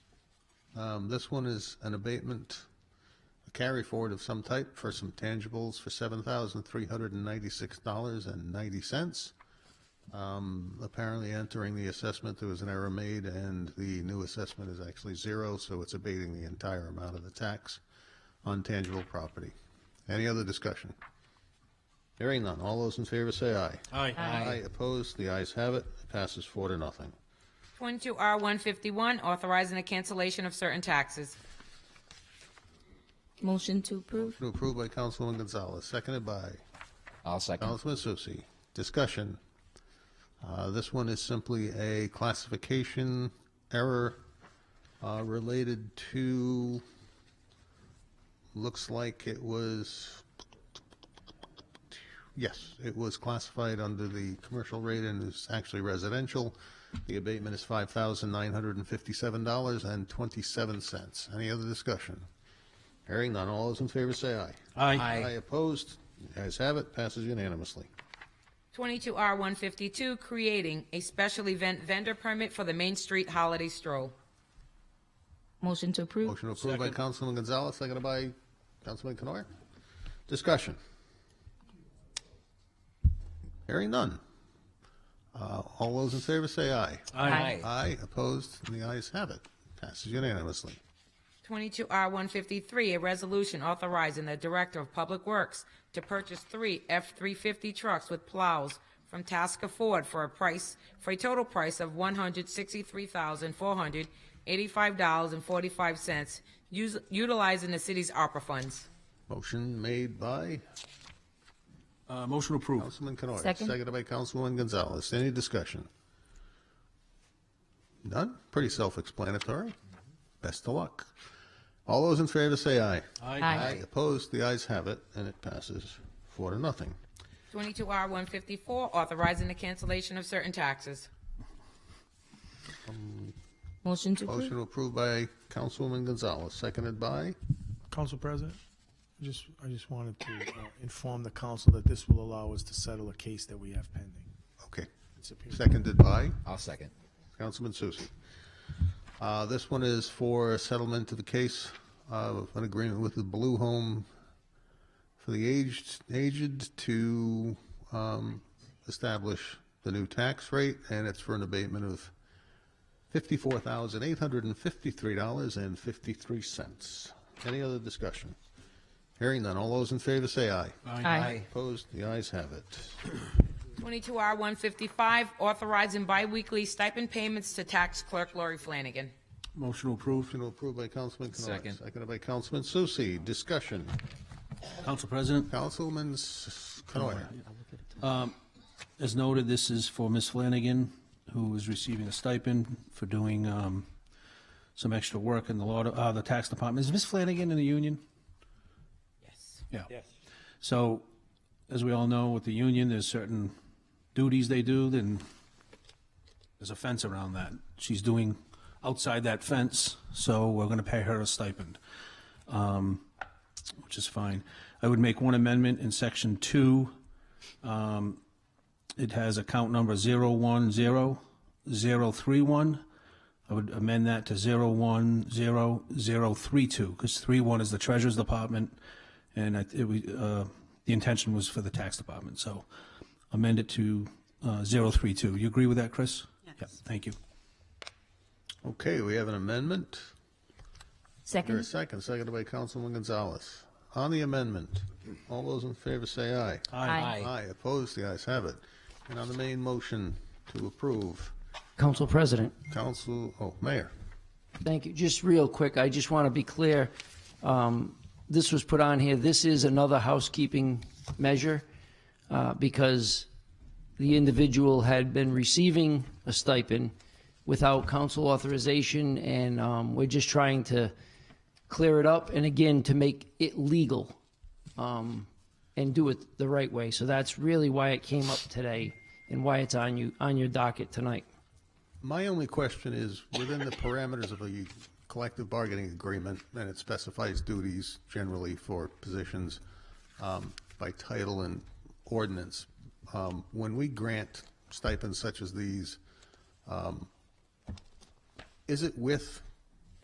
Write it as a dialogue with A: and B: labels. A: Um, This one is an abatement, a carry forward of some type for some tangibles for $7,396.90. Um, Apparently entering the assessment, there was an error made, and the new assessment is actually zero, so it's abating the entire amount of the tax on tangible property. Any other discussion? Hearing none. All those in favor say aye.
B: Aye.
A: Aye. Opposed? The ayes have it. It Passes four to nothing.
C: 22R151, authorizing the cancellation of certain taxes.
D: Motion to approve.
A: To approve by Councilwoman Gonzalez, seconded by
E: I'll second.
A: Councilman Susi. Discussion. Uh, This one is simply a classification error uh, related to, looks like it was, yes, it was classified under the commercial rate and is actually residential. The abatement is $5,957.27. Any other discussion? Hearing none, all those in favor say aye.
B: Aye.
A: Aye opposed, the ayes have it, passes unanimously.
C: 22R152, creating a special event vendor permit for the Main Street Holiday Stroll.
D: Motion to approve.
A: Motion approved by Councilman Gonzalez, seconded by Councilman Canoyer. Discussion. Hearing none. Uh, All those in favor say aye.
B: Aye.
A: Aye, opposed, and the ayes have it, passes unanimously.
C: 22R153, a resolution authorizing the Director of Public Works to purchase three F-350 trucks with plows from Tasker Ford for a price, for a total price of $163,485.45, us- utilizing the city's ARPA funds.
A: Motion made by
B: Uh, motion approved.
A: Councilman Canoyer.
D: Second.
A: Seconded by Councilwoman Gonzalez. Any discussion? None? Pretty self-explanatory. Best of luck. All those in favor say aye.
D: Aye.
A: Opposed, the ayes have it, and it passes four to nothing.
C: 22R154, authorizing the cancellation of certain taxes.
D: Motion to approve.
A: Motion approved by Councilwoman Gonzalez, seconded by,
F: Council President, I just, I just wanted to uh, inform the council that this will allow us to settle a case that we have pending.
A: okay,
F: It's a-
A: seconded by
E: I'll second.
A: Councilman Susie. Uh, This one is for settlement of the case of an agreement with the Blue Home for the aged, aged to um, establish the new tax rate, and it's for an abatement of $54,853.53. Any other discussion? Hearing none. All those in favor say aye.
D: Aye.
A: Opposed? The ayes have it.
C: 22R155, authorizing biweekly stipend payments to tax clerk Lori Flanagan.
B: Motion approved.
A: Motion approved by Councilman Canoia.
E: Second.
A: Seconded by Councilman Susie. Discussion.
B: Council President,
A: Councilman S- Canoia.
B: as noted, this is for Ms. Flanagan, who is receiving a stipend for doing, um, some extra work in the law, uh, the tax department. Is Ms. Flanagan in the union?
C: Yes.
B: Yeah. So, as we all know, with the union, there's certain duties they do, then there's a fence around that. She's doing outside that fence, so we're gonna pay her a stipend, um, which is fine. I would make one amendment in section two. Um, it has account number zero one zero zero three one. I would amend that to zero one zero zero three two, because three one is the treasurer's department, and I- it, we, uh, the intention was for the tax department, so amend it to, uh, zero three two. You agree with that, Chris? Yes. thank you.
A: Okay, we have an amendment. There a
D: Second.
A: second, seconded by Councilman Gonzalez. On the amendment, all those in favor say aye.
D: Aye.
A: Aye, opposed, the ayes have it. And on the main motion to approve,
G: Council President,
A: Council, oh, Mayor.
G: thank you. Just real quick, I just want to be clear. Um, This was put on here, this is another housekeeping measure uh, because the individual had been receiving a stipend without council authorization, and um, we're just trying to clear it up and again, to make it legal um, and do it the right way. So that's really why it came up today and why it's on you, on your docket tonight.
A: My only question is, within the parameters of a collective bargaining agreement, and it specifies duties generally for positions um, by title and ordinance, um, when we grant stipends such as these, um, is it with